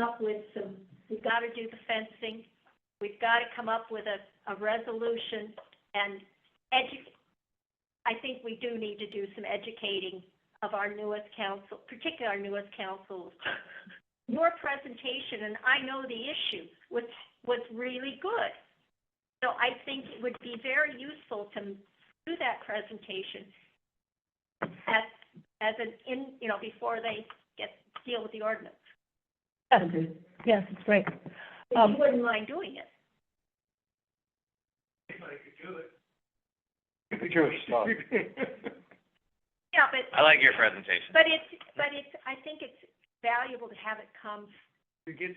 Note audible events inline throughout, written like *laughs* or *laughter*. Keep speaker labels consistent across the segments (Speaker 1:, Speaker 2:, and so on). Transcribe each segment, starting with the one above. Speaker 1: up with some, we've got to do the fencing, we've got to come up with a, a resolution and edu, I think we do need to do some educating of our newest council, particularly our newest councils. Your presentation, and I know the issue, was, was really good. So I think it would be very useful to do that presentation at, as an in, you know, before they get, deal with the ordinance.
Speaker 2: Yes, yes, it's great.
Speaker 1: If you
Speaker 2: Um,
Speaker 1: wouldn't mind doing it.
Speaker 3: *laughs*
Speaker 1: Yeah, but,
Speaker 4: I like your presentation.
Speaker 1: but it's, but it's, I think it's valuable to have it come
Speaker 3: To get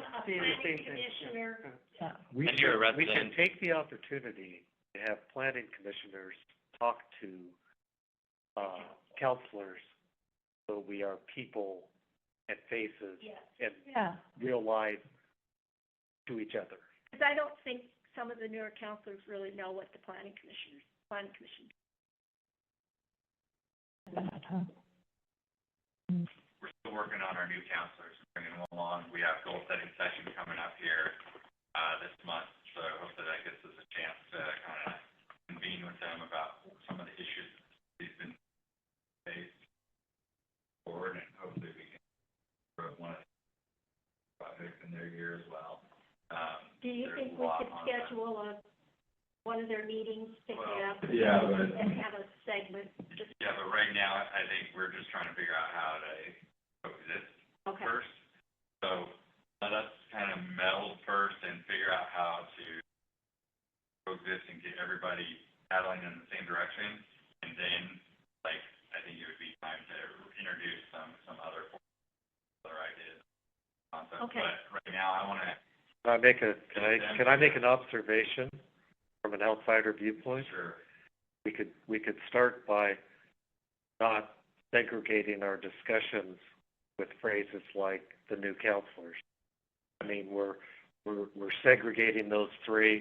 Speaker 1: from a
Speaker 3: seeing the
Speaker 1: planning
Speaker 3: same thing.
Speaker 1: commissioner.
Speaker 2: Yeah.
Speaker 3: We
Speaker 4: And you're a
Speaker 3: should, we should
Speaker 4: resident.
Speaker 3: take the opportunity to have planning commissioners talk to, uh, counselors, so we are people and faces
Speaker 1: Yes,
Speaker 3: and
Speaker 2: Yeah,
Speaker 3: real life to each other.
Speaker 1: because I don't think some of the newer counselors really know what the planning commissioners, planning commission.
Speaker 2: that, huh?
Speaker 4: We're still working on our new counselors, bringing them along. We have goal setting session coming up here, uh, this month. So I hope that that gives us a chance to kind of convene with them about some of the issues that they've been faced forward and hopefully we can put one of the projects in their year as well. Um,
Speaker 1: Do you
Speaker 4: there's
Speaker 1: think we
Speaker 4: a lot
Speaker 1: could
Speaker 4: on that.
Speaker 1: schedule a, one of their meetings, pick it
Speaker 4: Well,
Speaker 1: up?
Speaker 4: yeah, but-
Speaker 1: And have a segment, just,
Speaker 4: Yeah, but right now, I I think we're just trying to figure out how to coexist
Speaker 1: okay,
Speaker 4: first. So let us kind of meld first and figure out how to coexist and get everybody paddling in the same direction. And then, like, I think it would be time to introduce some, some other, other ideas, concepts.
Speaker 1: Okay.
Speaker 4: But right now, I want to,
Speaker 3: Can I make a, can I, can I make an observation from an outsider viewpoint?
Speaker 4: sure,
Speaker 3: we could, we could start by not segregating our discussions with phrases like the new counselors. I mean, we're, we're, we're segregating those three.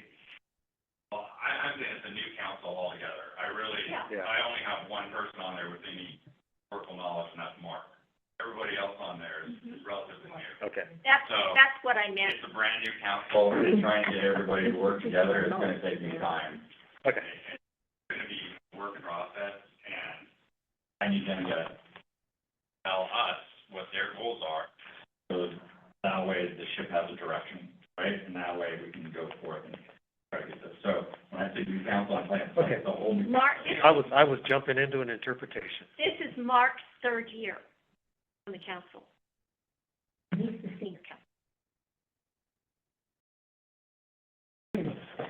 Speaker 4: well, I, I'm against the new council altogether. I really,
Speaker 1: Yeah.
Speaker 3: Yeah.
Speaker 4: I only have one person on there with any workable knowledge, and that's Mark. Everybody else on there is
Speaker 1: Mm-hmm.
Speaker 4: is relatively new.
Speaker 3: Okay.
Speaker 1: that's,
Speaker 4: So-
Speaker 1: that's what I meant.
Speaker 4: It's a brand new council, we're trying to get everybody to work together, it's gonna take me time.
Speaker 3: Okay.
Speaker 4: It's gonna be a work process, and I need them to tell us what their goals are, so that way the ship has a direction, right? And that way we can go forth and try to get this, so when I say new council, I'm like,
Speaker 3: Okay.
Speaker 4: the whole new.
Speaker 1: Mark, this
Speaker 3: I was, I was jumping into an interpretation.
Speaker 1: This is Mark's third year on the council. He's the senior council.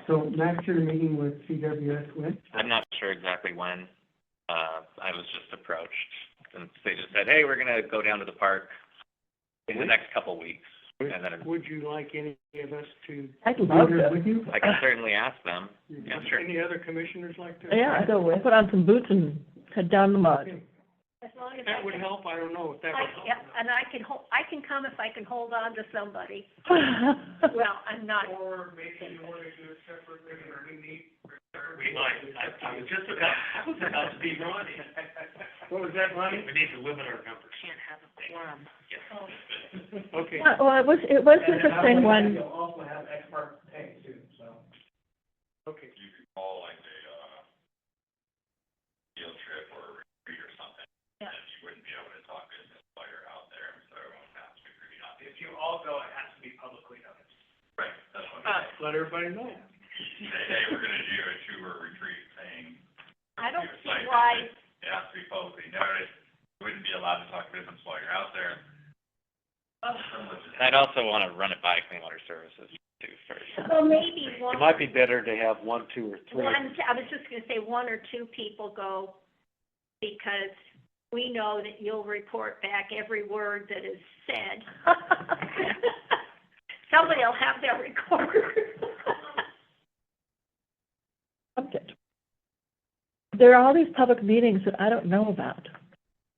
Speaker 5: So Max, you're meeting with CWS when?
Speaker 4: I'm not sure exactly when, uh, I was just approached, and they just said, hey, we're gonna go down to the park in the next couple of weeks, and then
Speaker 3: Would you like any of us to?
Speaker 2: I'd
Speaker 5: Be
Speaker 2: love
Speaker 5: there
Speaker 2: to.
Speaker 5: with you?
Speaker 4: I can certainly ask them. Yeah, sure.
Speaker 3: Any other commissioners like to?
Speaker 2: Yeah, I'd go with, put on some boots and head down the *laughs* mud.
Speaker 1: As long as I
Speaker 3: That would
Speaker 1: can-
Speaker 3: help, I don't know if that
Speaker 1: I,
Speaker 3: would help.
Speaker 1: yeah, and I can ho- I can come if I can hold on to
Speaker 3: *laughs*
Speaker 1: somebody. Well, I'm not,
Speaker 3: Or maybe you wanna do a separate regular meeting? We might, I, I was just about, I was about to be Ronnie. *laughs* What was that, Ronnie? We need to limit our numbers. Can't have a quorum. Okay.
Speaker 2: Yeah, Well, it was, it was interesting when,
Speaker 5: also have expert pay too, so.
Speaker 3: Okay.
Speaker 4: You could call like a, uh, field trip or retreat or something.
Speaker 1: Yeah.
Speaker 4: And you wouldn't be able to talk business while you're out there, so it won't have to be pretty obvious.
Speaker 3: If you all go, it has to be publicly noticed.
Speaker 4: Right, that's what I'm
Speaker 3: Let everybody know.
Speaker 4: saying. Say, hey, we're gonna do a two-hour retreat thing.
Speaker 1: I don't
Speaker 4: It's
Speaker 1: see
Speaker 4: like-
Speaker 1: why,
Speaker 4: It has to be publicly noticed. You wouldn't be allowed to talk business while you're out there. I'd also wanna run it by Clean Water Services too first.
Speaker 1: well, maybe one,
Speaker 3: It might be better to have one, two, or three.
Speaker 1: one, I was just gonna say one or two people go because we know that you'll report back every word that is said. *laughs* Somebody will have their recorder.
Speaker 2: Subject. there are all these public meetings that I don't know about.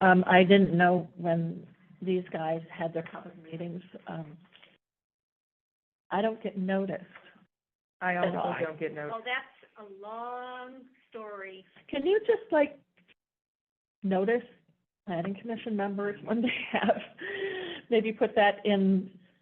Speaker 2: Um, I didn't know when these guys had their public meetings. Um, I don't get noticed. I also don't get
Speaker 1: Well, that's a long story.
Speaker 2: Can you just like notice planning commission members when they have, maybe put that in